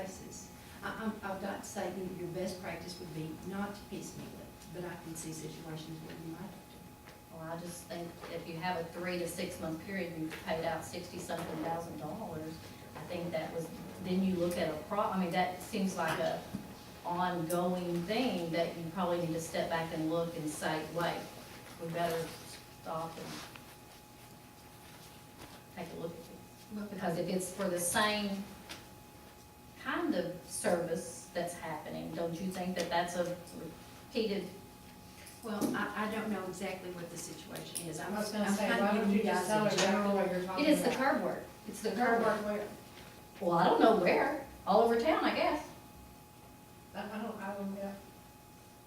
places. I, I'm, I've got to say, your, your best practice would be not to piecemeal it, but I can see situations where you might have to. Well, I just think if you have a three to six month period, and you've paid out sixty something thousand dollars, I think that was, then you look at a pro, I mean, that seems like a ongoing thing that you probably need to step back and look and say, wait, we better stop and take a look at it. Look, Because if it's for the same kind of service that's happening, don't you think that that's a repeated? Well, I, I don't know exactly what the situation is. I'm, I I'm was gonna say, kind why of don't giving you you guys just tell her a exactly general. what you're talking It about? is the curb work, it's the The curb curb work. work where, Well, I don't know where, all over town, I guess. I, I don't, I don't, know.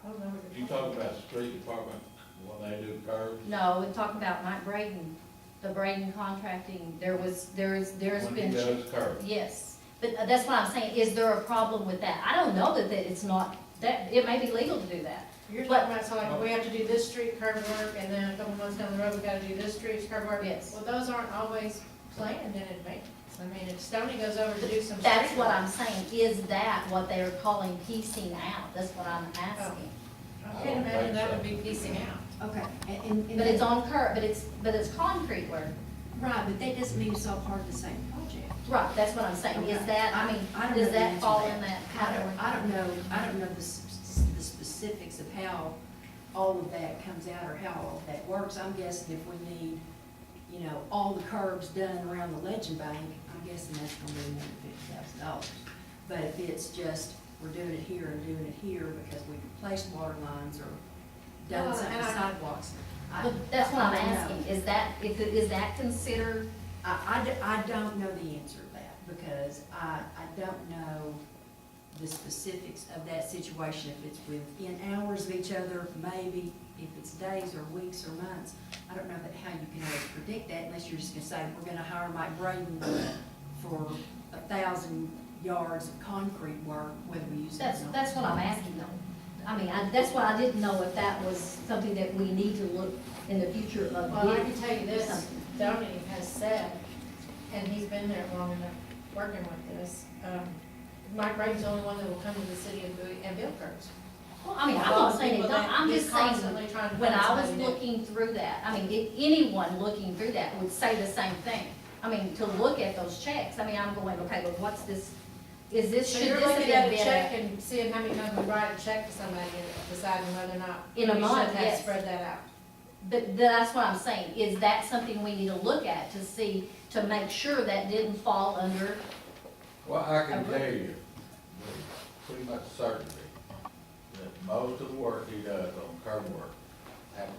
I don't know what You you're talk talking about. about the street department, when they do curbs, No, we're talking about Mike Braden, the Braden contracting, there was, there is, there's when he been. does curbs. Yes, but uh, that's what I'm saying, is there a problem with that? I don't know that, that it's not, that, it may be legal to do that. You're What- talking about, so like, we have to do this street curb work, and then a couple months down the road, we gotta do this street curb work. Yes. Well, those aren't always planned in advance. I mean, if Stony goes over to do some. That's street what work- I'm saying, is that what they are calling piecing out? That's what I'm asking. Oh. I Oh, can't imagine that would be piecing out. Okay, and- and, and. But it's that- on curb, but it's, but it's concrete work. Right, but that doesn't mean it's all part of the same project. Right, that's what I'm saying, is Okay. that, I I mean, don't does know the answer that to fall that. in that I don't, category? I don't know, I don't know the, s- the specifics of how all of that comes out or how all of that works. I'm guessing if we need, you know, all the curbs done around the legend bank, I'm guessing that's gonna be more than fifty thousand dollars. But if it's just, we're doing it here and doing it here because we replaced water lines or Well, done some and I- sidewalks. I- But That's what I'm I don't know. asking, is that, if, it- is that considered, I, I d- I don't know the answer to that, because I, I don't know the specifics of that situation, if it's within hours of each other, maybe, if it's days or weeks or months. I don't know that how you can always predict that unless you're just gonna say, we're gonna hire Mike Braden for a thousand yards of concrete work, whether we use it or that's, not. that's what I'm asking though. I mean, I, that's why I didn't know if that was something that we need to look in the future of. Well, I doing can tell you this, something. Tony has said, and he's been there long enough, working with this, um, Mike Brady's the only one that will come to the city and Bowie and build curbs. Well, I mean, I'm A lot not of saying it, people don't- that I'm he's just saying, constantly trying to when find I was somebody to- looking through that, I mean, if anyone looking through that would say the same thing. I mean, to look at those checks, I mean, I'm going, okay, but what's this, is this, So should you're this have looking at been a better? check and seeing how many times we write a check to somebody and deciding whether or not. In a we should month, have yes. Spread that out. But that's what I'm saying, is that something we need to look at to see, to make sure that didn't fall under, Well, I can Uh-huh. tell you, with pretty much certainty, that most of the work he does on curb work happens,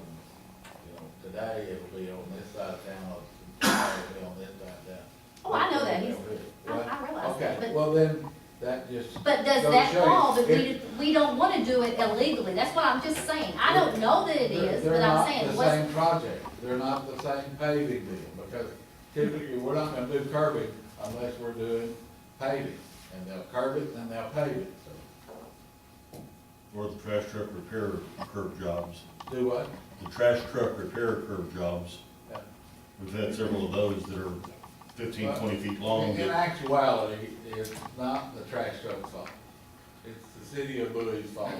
you know, today it'll be on this side of town, tomorrow it'll be on this side of town. oh, I know that, he's, I, What? I realize that, Okay, but, well then, that just, but does Go that show you. fall, that we, It- we don't wanna do it illegally, that's what I'm just saying. I don't know that it They're- is, but I'm saying, what's They're not the same project, they're not the same paving deal, because typically, we're not gonna do curbing unless we're doing paving, and they'll curb it, and they'll pave it, so, Or the trash truck repair curb jobs, do what? the trash truck repair curb jobs, Yeah. we've had several of those that are fifteen, twenty feet long. In that- actuality, it's not the trash truck's fault, it's the city of Bowie's fault,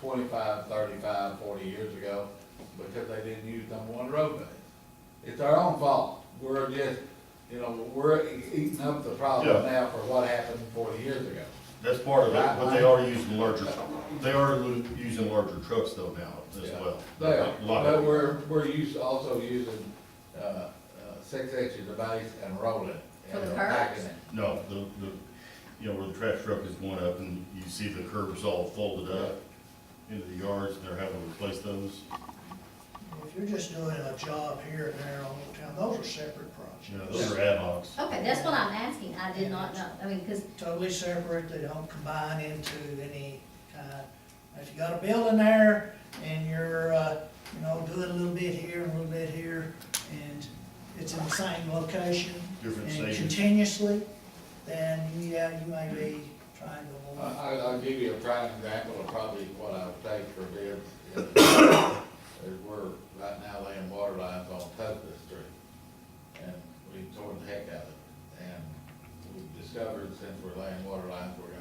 25, 35, 40 years ago, because they didn't use number one roadway. It's our own fault, we're just, you know, we're eating up the problem Yeah. now for what happened forty years ago. That's part of it, but they are using larger, they are lo- using larger trucks though now as Yeah. well. They are, A lot of- but we're, we're used, also using, uh, uh, six inches of base and rolling. For the and curves? packing it. No, the, the, you know, where the trash truck is going up and you see the curbs all folded up into the yards, and they're having to replace those, If you're just doing a job here and there all the time, those are separate you know, projects. those are ad hocs. Okay, that's what I'm asking, I did not know, I mean, because, Totally separate, they don't combine into any kind. If you got a building there and you're, uh, you know, doing a little bit here and a little bit here, and it's in the same location Different and stages. continuously, then, yeah, you may be trying to I, avoid. I- I'll give you a prime example of probably what I would take for bids. Is we're right now laying water lines on Tugby Street, and we tore the heck out of it. And we discovered since we're laying water lines, we're